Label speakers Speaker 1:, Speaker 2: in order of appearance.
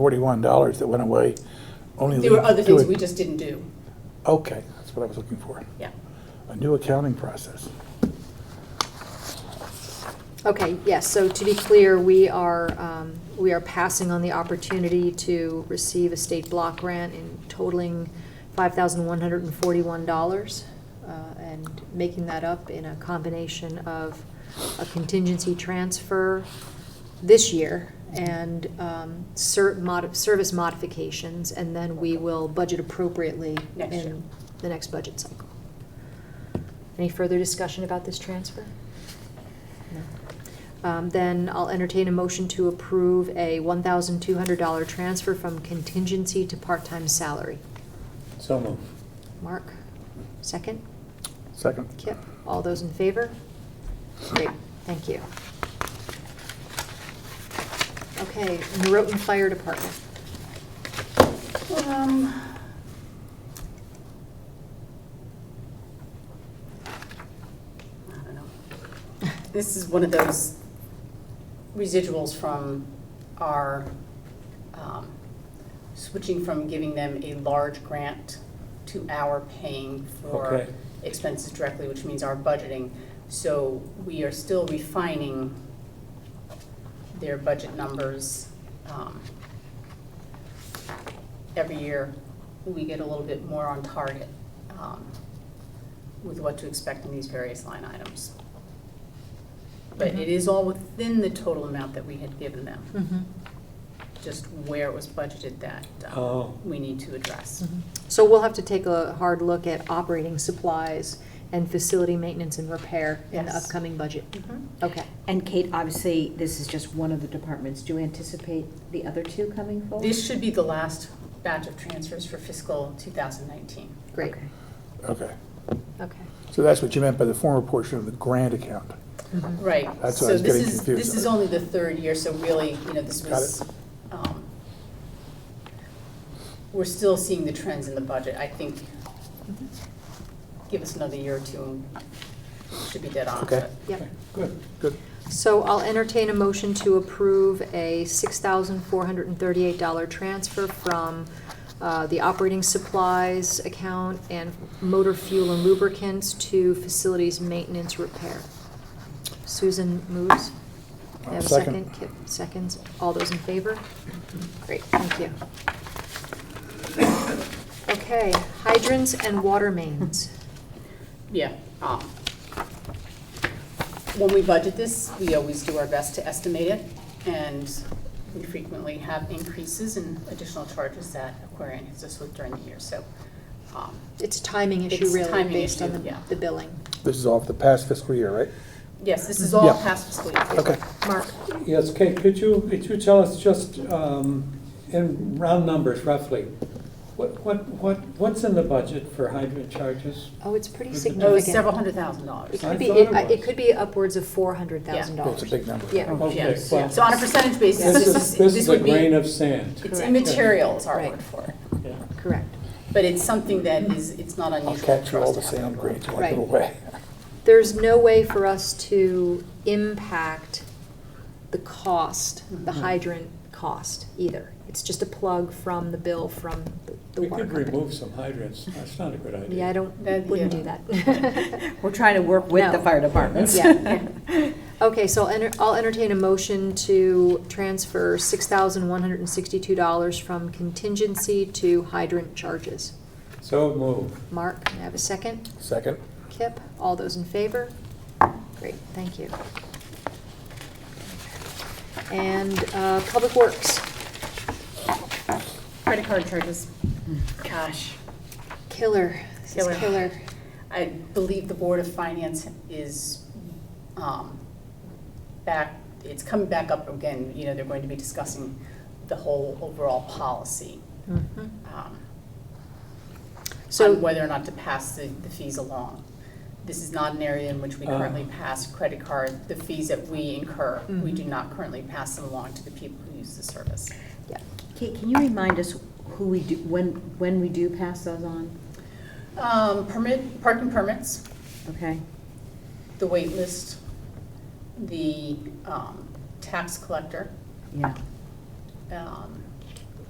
Speaker 1: forty-one dollars that went away. Only
Speaker 2: There were
Speaker 1: lead
Speaker 2: other
Speaker 1: to
Speaker 2: things
Speaker 1: a-
Speaker 2: we just didn't do,
Speaker 1: Okay, that's what I was looking for.
Speaker 2: yeah.
Speaker 1: A new accounting process.
Speaker 3: Okay, yes, so to be clear, we are, um, we are passing on the opportunity to receive a state block grant in totaling $5,141, uh, and making that up in a combination of a contingency transfer this year and um, cert mod, service modifications, and then we will budget appropriately
Speaker 2: Next year.
Speaker 3: in the next budget cycle. Any further discussion about this transfer? No. Um, Then I'll entertain a motion to approve a $1,200 transfer from contingency to part-time salary.
Speaker 4: So moved.
Speaker 3: Mark, second?
Speaker 1: Second.
Speaker 3: Kip, all those in favor? Great, thank you. Okay, Norotan Fire Department.
Speaker 2: Um, I don't know. This is one of those residuals from our, um, switching from giving them a large grant to our paying for
Speaker 4: Okay.
Speaker 2: expenses directly, which means our budgeting. So we are still refining their budget numbers. um, every year, we get a little bit more on target um, with what to expect in these various line items. But it is all within the total amount that we had given them,
Speaker 3: Hmm.
Speaker 2: just where it was budgeted that um,
Speaker 4: Oh.
Speaker 2: we need to address.
Speaker 3: So we'll have to take a hard look at operating supplies and facility maintenance and repair in the
Speaker 2: Yes.
Speaker 3: upcoming budget.
Speaker 2: Mhm.
Speaker 3: Okay.
Speaker 5: And Kate, obviously, this is just one of the departments. Do you anticipate the other two coming forward?
Speaker 2: This should be the last batch of transfers for fiscal 2019.
Speaker 3: Great,
Speaker 5: Okay.
Speaker 1: Okay.
Speaker 3: okay.
Speaker 1: So that's what you meant by the former portion of the grant account.
Speaker 3: Mhm.
Speaker 2: Right.
Speaker 1: That's what I was getting
Speaker 2: So
Speaker 1: confused
Speaker 2: this is, this is
Speaker 1: about.
Speaker 2: only the third year, so really, you know, this
Speaker 1: Got
Speaker 2: was, um, we're still seeing the trends in the budget. I think, give us another year or two, and it should be dead on.
Speaker 1: Okay.
Speaker 3: Yep.
Speaker 1: Good. Good.
Speaker 3: So I'll entertain a motion to approve a $6,438 transfer from uh, the operating supplies account and motor fuel and lubricants to facilities maintenance repair. Susan moves. May I have a
Speaker 1: Second.
Speaker 3: second? Kip seconds. All those in favor? Great, thank you. Okay, hydrants and water mains.
Speaker 2: Yeah. um, When we budget this, we always do our best to estimate it, and we frequently have increases and additional charges that Aquarian hits us with during the year, so. um,
Speaker 3: It's a timing issue
Speaker 2: It's a
Speaker 3: really,
Speaker 2: timing
Speaker 3: based on
Speaker 2: issue,
Speaker 3: the
Speaker 2: yeah.
Speaker 3: the billing.
Speaker 1: This is off the past fiscal year, right?
Speaker 2: Yes, this is all
Speaker 1: Yeah.
Speaker 2: past fiscal year.
Speaker 1: Okay.
Speaker 3: Mark?
Speaker 4: Yes, Kate, could you, could you tell us just um, in round numbers roughly, what, what, what what's in the budget for hydrant charges?
Speaker 3: Oh, it's pretty
Speaker 4: Is it-
Speaker 2: No, it's
Speaker 3: significant.
Speaker 2: several hundred thousand dollars.
Speaker 3: It
Speaker 4: I
Speaker 3: could be,
Speaker 4: thought it
Speaker 3: it
Speaker 4: was.
Speaker 3: it could be upwards of four hundred thousand
Speaker 1: Well, It's
Speaker 3: dollars.
Speaker 1: a big number.
Speaker 3: Yeah.
Speaker 4: Okay,
Speaker 2: Yes,
Speaker 4: well,
Speaker 2: so on a percentage basis,
Speaker 4: This
Speaker 2: this
Speaker 4: is,
Speaker 2: is,
Speaker 4: this is
Speaker 2: this
Speaker 4: a
Speaker 2: would be,
Speaker 4: grain of
Speaker 2: it's
Speaker 4: sand.
Speaker 3: Correct.
Speaker 2: immaterial is our
Speaker 3: Right.
Speaker 2: word for it.
Speaker 4: Yeah.
Speaker 3: Correct.
Speaker 2: But it's something that is, it's not
Speaker 1: I'll
Speaker 2: unusual
Speaker 1: capture
Speaker 2: for
Speaker 1: all
Speaker 2: us to
Speaker 1: the sand
Speaker 2: have.
Speaker 1: grains while I
Speaker 3: Right.
Speaker 1: go away.
Speaker 3: There's no way for us to impact the cost, the
Speaker 4: Mm-hmm.
Speaker 2: Mhm.
Speaker 3: hydrant cost either. It's just a plug from the bill from the- the
Speaker 4: We
Speaker 3: water
Speaker 4: could
Speaker 3: company.
Speaker 4: remove some hydrants, that's not a good idea.
Speaker 3: Yeah, I don't,
Speaker 2: That-
Speaker 3: wouldn't do
Speaker 2: yeah.
Speaker 3: that.
Speaker 5: We're trying to work with the
Speaker 3: No.
Speaker 5: fire departments.
Speaker 3: Yeah. Okay, so I'll enter, I'll entertain a motion to transfer six thousand one hundred and sixty-two dollars from contingency to hydrant charges.
Speaker 4: So move.
Speaker 3: Mark, can I have a second?
Speaker 1: Second.
Speaker 3: Kip, all those in favor? Great, thank you. And uh, Public Works,
Speaker 2: Credit card charges, gosh.
Speaker 3: killer, this is
Speaker 2: Killer.
Speaker 3: killer.
Speaker 2: I believe the Board of Finance is um, back, it's coming back up again, you know, they're going to be discussing the whole overall policy.
Speaker 3: Mhm.
Speaker 2: um,
Speaker 3: So-
Speaker 2: on whether or not to pass the, the fees along. This is not an area in which we
Speaker 4: Ah.
Speaker 2: currently pass credit card, the fees that we incur. We do
Speaker 3: Mhm.
Speaker 2: not currently pass them along to the people who use the service.
Speaker 3: Yeah.
Speaker 5: Kate, can you remind us who we do, when, when we do pass those on?
Speaker 2: Um, Permit, parking permits,
Speaker 5: Okay?
Speaker 2: the wait list, the um, tax collector,
Speaker 5: Yeah.
Speaker 2: um,